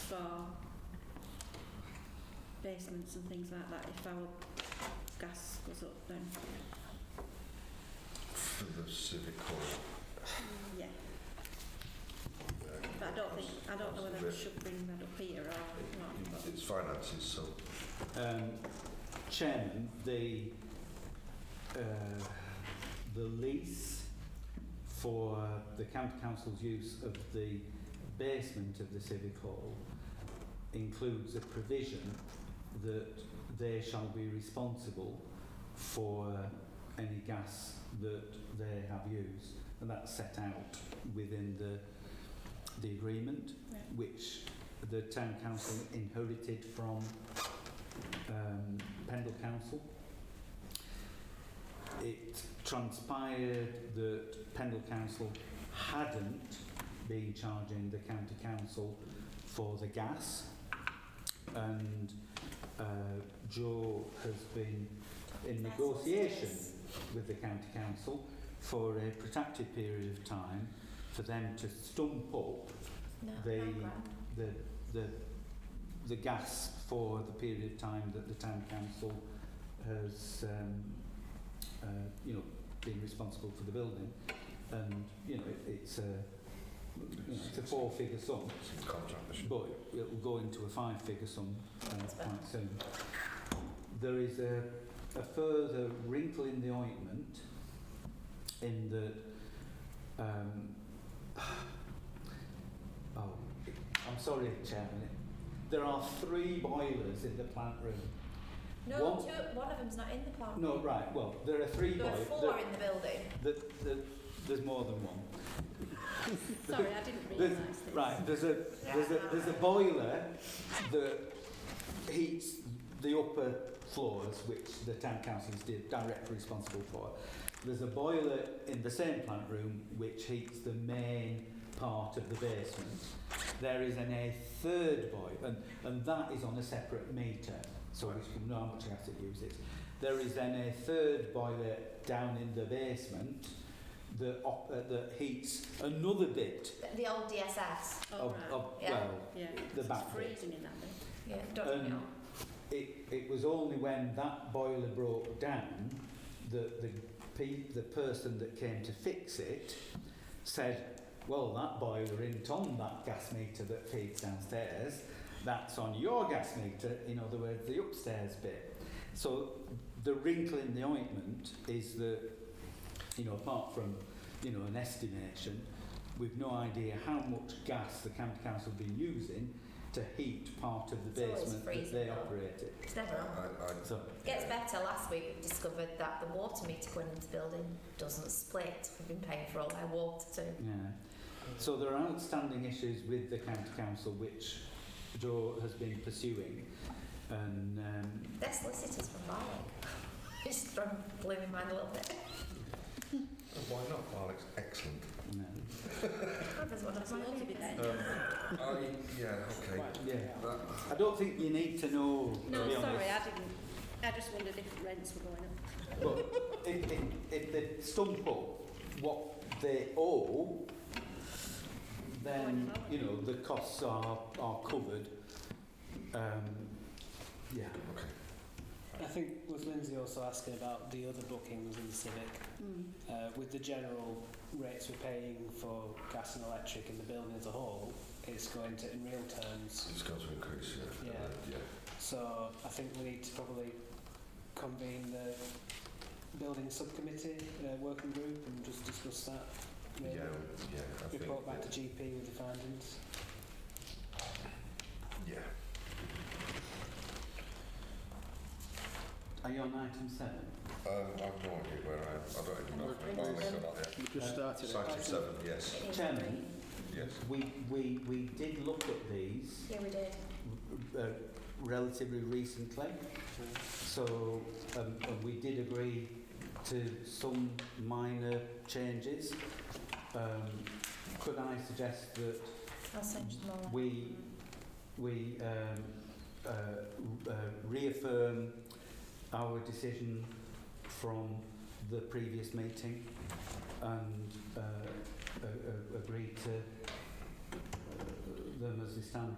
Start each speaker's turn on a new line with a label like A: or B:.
A: for basements and things like that if our gas goes up then
B: for the civic hall.
A: yeah
B: uh,
A: but I don't think I don't know whether I should bring that up here or not but
B: It's finances, so
C: Um, Chairman, the, uh, the lease for the county council's use of the basement of the civic hall includes a provision that they shall be responsible for any gas that they have used and that's set out within the the agreement
A: yeah.
C: which the town council inherited from um, Pendle Council. It transpired that Pendle Council hadn't been charging the county council for the gas and uh, Joe has been in negotiations with the county council for a protracted period of time for them to stump up
D: No,
C: They-
D: nine grand.
C: the, the, the gas for the period of time that the town council has, um, uh, you know, been responsible for the building. And, you know, it, it's a, you know, it's a four-figure sum,
B: it's in contract. They should-
C: but it will go into a five-figure sum uh, quite soon. There is a, a further wrinkle in the ointment in that, um, oh, I'm sorry, Chairman. There are three boilers in the plant room.
D: No,
C: One-
D: two, one of them's not in the plant.
C: No, right, well, there are three
D: There are
C: boilers.
D: four in the building.
C: there's more than one.
A: sorry I didn't
C: There's-
A: realise this
C: Right, there's a, there's a, there's a boiler that heats the upper floors, which the town council is di- directly responsible for. There's a boiler in the same plant room which heats the main part of the basement. There is an a third boiler, and, and that is on a separate meter, so we can know how much gas it uses. There is then a third boiler down in the basement that, op- uh, that heats another bit
D: The, the old DSS.
A: oh,
C: of,
A: right.
C: of
D: Yeah.
C: well,
A: yeah
C: the
A: it's
C: back bit.
A: freezing in that bit
D: Yeah, don't
C: Um,
D: know.
C: It, it was only when that boiler broke down that the pe- the person that came to fix it said, "Well, that boiler isn't on that gas meter that feeds downstairs. That's on your gas meter. In other words, the upstairs bit." So the wrinkle in the ointment is that you know, apart from you know an estimation, we've no idea how much gas the county council have been using to heat part of the
D: It's always
C: basement that
D: freezing,
C: they
D: though.
C: operate it.
D: It's
B: I,
D: never on.
B: I, I,
C: So
D: It gets better. Last week we discovered that the water meter going into the building doesn't split. We've been paying for all our water too.
C: yeah, so there are outstanding issues with the county council which Joe has been pursuing, and um,
D: Their solicitors from Barwick. It's from blowing mine a little bit.
B: why not? Alex, excellent.
C: you know,
D: There's one of
A: There's loads of it
D: mine.
A: there.
B: Um, I, yeah, okay.
C: yeah.
B: That,
C: I don't think you need to know. to
A: no
C: be honest.
A: sorry I didn't I just wondered if rents were going up
C: But if, if, if they stump up what they owe, then, you know, the costs are, are covered. Um, yeah.
B: okay.
E: I think with Lindsay also asking about the other bookings in the Civic,
A: mm.
E: uh, with the general rates we're paying for gas and electric in the building as a whole, it's going to, in real terms,
B: It's going to increase, yeah. Uh,
E: Yeah.
B: yeah.
E: so I think we need to probably convene the building subcommittee, uh, working group, and just discuss that.
B: Yeah,
E: really.
B: yeah, I think.
E: Report back to GP with the findings.
B: Yeah.
C: Are you on item seven?
B: Um, I've no idea where I am. I don't even know if I'm
A: Remember-
B: about that.
F: We've
C: Uh,
F: just started it.
B: Item seven, yes,
D: It is
C: Chairman.
D: green.
B: yes.
C: We, we, we did look at these
D: Yeah, we did.
C: uh, relatively recently, so um, and we did agree to some minor changes. Um, could I suggest that
D: I'll send you them all.
C: We- we um, uh, uh, reaffirm our decision from the previous meeting and uh, uh, uh, agree to uh, them as they stand.